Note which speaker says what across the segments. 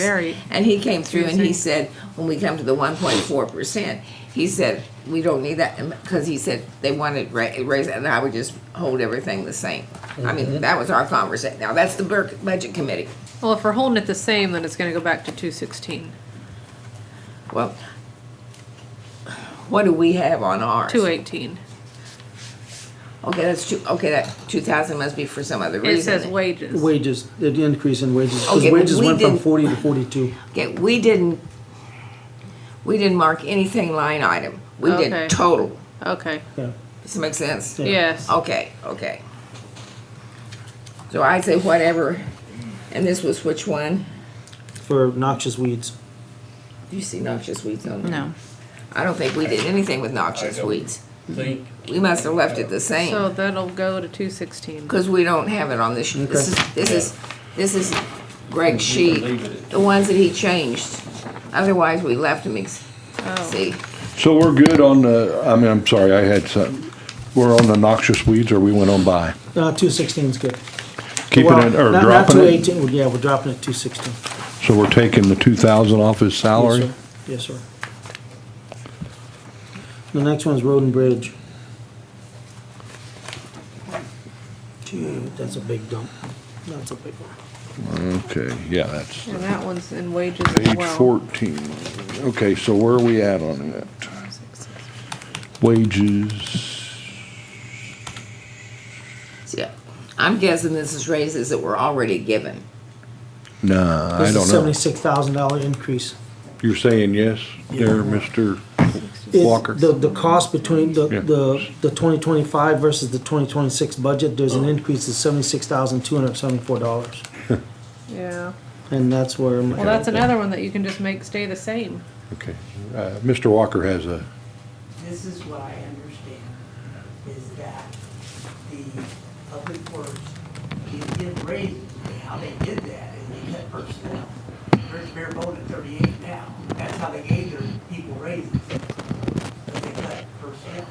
Speaker 1: Very.
Speaker 2: And he came through and he
Speaker 1: Interesting.
Speaker 2: said, when we come to the one point four percent, he said, we don't need that, because he said they wanted ra- raise, and I would just hold everything the same. I mean, that was our conversation. Now, that's the bur- budget committee.
Speaker 1: Well, if we're holding it the same, then it's gonna go back to two sixteen,
Speaker 2: Well, what do we have on ours?
Speaker 1: two eighteen.
Speaker 2: Okay, that's two, okay, that two thousand must be for some other reason.
Speaker 1: It says wages.
Speaker 3: Wages, the increase in wages,
Speaker 2: Okay,
Speaker 3: because
Speaker 2: but
Speaker 3: wages
Speaker 2: we
Speaker 3: went from
Speaker 2: didn't-
Speaker 3: forty to forty-two.
Speaker 2: Okay, we didn't, we didn't mark anything line item. We
Speaker 1: Okay.
Speaker 2: did total.
Speaker 1: Okay,
Speaker 3: Yeah,
Speaker 2: Does that make sense?
Speaker 3: Yeah. Oh.
Speaker 1: yes,
Speaker 2: Okay, okay. So I'd say whatever, and this was which one?
Speaker 3: For noxious weeds.
Speaker 2: Do you see noxious weeds on there?
Speaker 4: No.
Speaker 2: I don't think we did anything with noxious
Speaker 5: I don't.
Speaker 2: weeds.
Speaker 5: think
Speaker 2: We must have left it the
Speaker 1: so
Speaker 2: same,
Speaker 1: that'll go to two sixteen.
Speaker 2: because we don't have it on this, sheet. this is, this is, this is Greg's
Speaker 5: we
Speaker 2: sheet,
Speaker 5: can leave it at
Speaker 2: the ones that he changed. Otherwise, we left them, ex- see,
Speaker 6: So we're good on the, I mean, I'm sorry, I had some, we're on the noxious weeds or we went on by?
Speaker 3: Uh, two sixteen is good.
Speaker 6: Keeping
Speaker 3: Well,
Speaker 6: it or
Speaker 3: not-
Speaker 6: dropping
Speaker 3: Not two
Speaker 6: it?
Speaker 3: eighteen, yeah, we're dropping it two sixteen.
Speaker 6: So we're taking the two thousand off his salary?
Speaker 3: Yes, sir. The next one's road and bridge. Gee, that's a big dump. That's a big one.
Speaker 6: Okay, yeah, that's
Speaker 1: And that one's in wages as
Speaker 6: page
Speaker 1: well.
Speaker 6: fourteen. Okay, so where are we at on it? Wages,
Speaker 2: see, I'm guessing this is raises that were already given.
Speaker 6: nah, I
Speaker 3: This
Speaker 6: don't
Speaker 3: is
Speaker 6: know.
Speaker 3: seventy-six thousand dollar increase.
Speaker 6: You're saying yes there, Mr.
Speaker 3: It-
Speaker 6: Walker?
Speaker 3: The, the cost between the,
Speaker 6: Yeah.
Speaker 3: the, the twenty twenty-five versus the twenty twenty-six budget, there's an
Speaker 6: Oh.
Speaker 3: increase of seventy-six thousand two hundred seventy-four dollars.
Speaker 1: Yeah,
Speaker 3: And that's where. my-
Speaker 1: well, that's another one that you can just make stay the same.
Speaker 6: Okay, uh, Mr. Walker has a,
Speaker 7: This is what I understand, is that the public works did give raises, and how they did that is they cut personnel. There's bare bone at thirty-eight now, that's how they gave their people raises, but they cut personnel.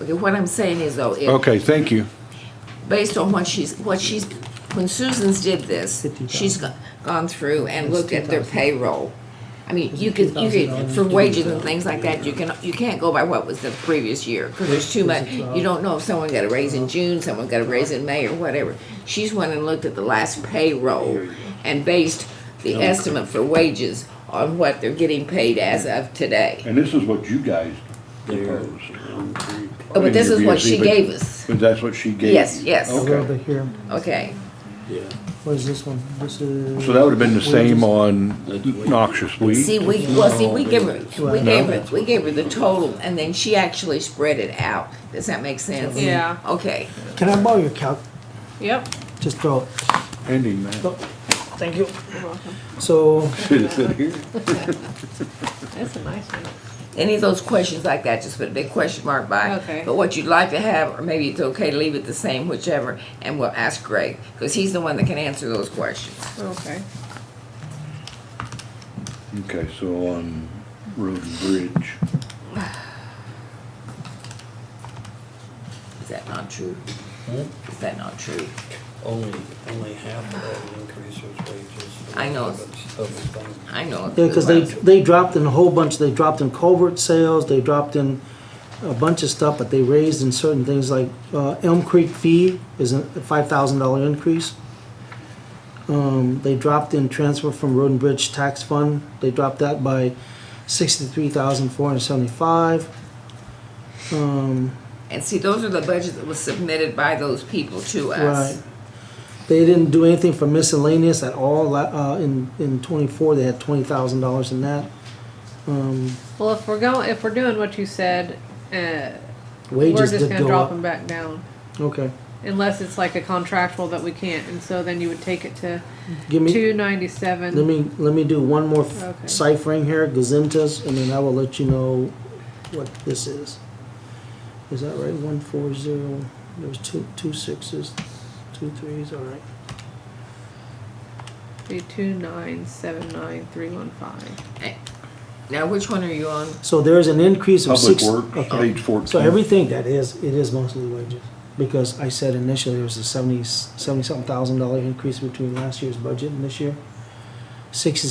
Speaker 2: Okay, what I'm saying is though, if,
Speaker 6: okay, thank you.
Speaker 2: based on what she's, what she's, when Susan's did this, she's go- gone through and looked at their payroll. I mean, you could, you could, for wages and things like that, you can, you can't go by what was the previous year, because there's too much, you don't know if someone got a raise in June, someone got a raise in May, or whatever. She's went and looked at the last payroll and based the estimate for wages on what they're getting paid as of today.
Speaker 6: And this is what you guys proposed.
Speaker 2: Oh, But this is what she gave us.
Speaker 6: E, But that's what she gave?
Speaker 2: Yes, yes.
Speaker 3: A little
Speaker 6: Okay,
Speaker 3: bit here.
Speaker 2: Okay,
Speaker 3: Where's this one? This is.
Speaker 6: so that would've been the same on noxious
Speaker 2: See,
Speaker 6: weed?
Speaker 2: we, well, see, we gave her, we
Speaker 3: Well,
Speaker 2: gave her, we gave her the total, and then she actually spread it out. Does that make sense?
Speaker 1: Yeah.
Speaker 2: Okay,
Speaker 3: Can I borrow your calc?
Speaker 1: Yep,
Speaker 3: Just throw it.
Speaker 6: Ending that.
Speaker 3: Go. Thank you. So,
Speaker 6: Sit here.
Speaker 1: that's a nice one.
Speaker 2: any of those questions like that, just put a big question mark by.
Speaker 1: Okay.
Speaker 2: But what you'd like to have, or maybe it's okay to leave it the same, whichever, and we'll ask Greg, because he's the one that can answer those questions.
Speaker 1: Okay,
Speaker 6: Okay, so on road and bridge,
Speaker 2: Is that not true? Is that not true?
Speaker 8: Hmm? Only, only half of that increase was wages.
Speaker 2: I know. I know.
Speaker 3: yeah, cause they, they dropped in a whole bunch, they dropped in culvert sales, they dropped in a bunch of stuff, but they raised in certain things like, uh, Elm Creek fee is a five thousand dollar increase. Um, they dropped in transfer from Road and Bridge Tax Fund, they dropped that by sixty-three thousand four hundred seventy-five. Um,
Speaker 2: And see, those are the budgets that was submitted by those people to us.
Speaker 3: Right. They didn't do anything for miscellaneous at all, La- uh, in, in twenty-four, they had twenty thousand dollars in that. Um,
Speaker 1: well, if we're going, if we're doing what you said, uh, we're
Speaker 3: wages
Speaker 1: just
Speaker 3: did
Speaker 1: gonna
Speaker 3: go
Speaker 1: drop them
Speaker 3: up.
Speaker 1: back down.
Speaker 3: Okay,
Speaker 1: Unless it's like a contractual that we can't, and so then you would take it to
Speaker 3: give me,
Speaker 1: two ninety-seven.
Speaker 3: let me, let me do one more f-
Speaker 1: Okay.
Speaker 3: ciphering here, gazintas, and then I will let you know what this is. Is that right, one four zero, there's two, two sixes, two threes, all right.
Speaker 1: Be two nine seven nine three one five.
Speaker 2: Now, which one are you on?
Speaker 3: So there's an increase of
Speaker 6: public
Speaker 3: six.
Speaker 6: works,
Speaker 3: okay.
Speaker 6: page
Speaker 3: So
Speaker 6: fourteen.
Speaker 3: everything that is, it is mostly wages, because I said initially there was a seventy, seventy-something thousand dollar increase between last year's budget and this year. sixty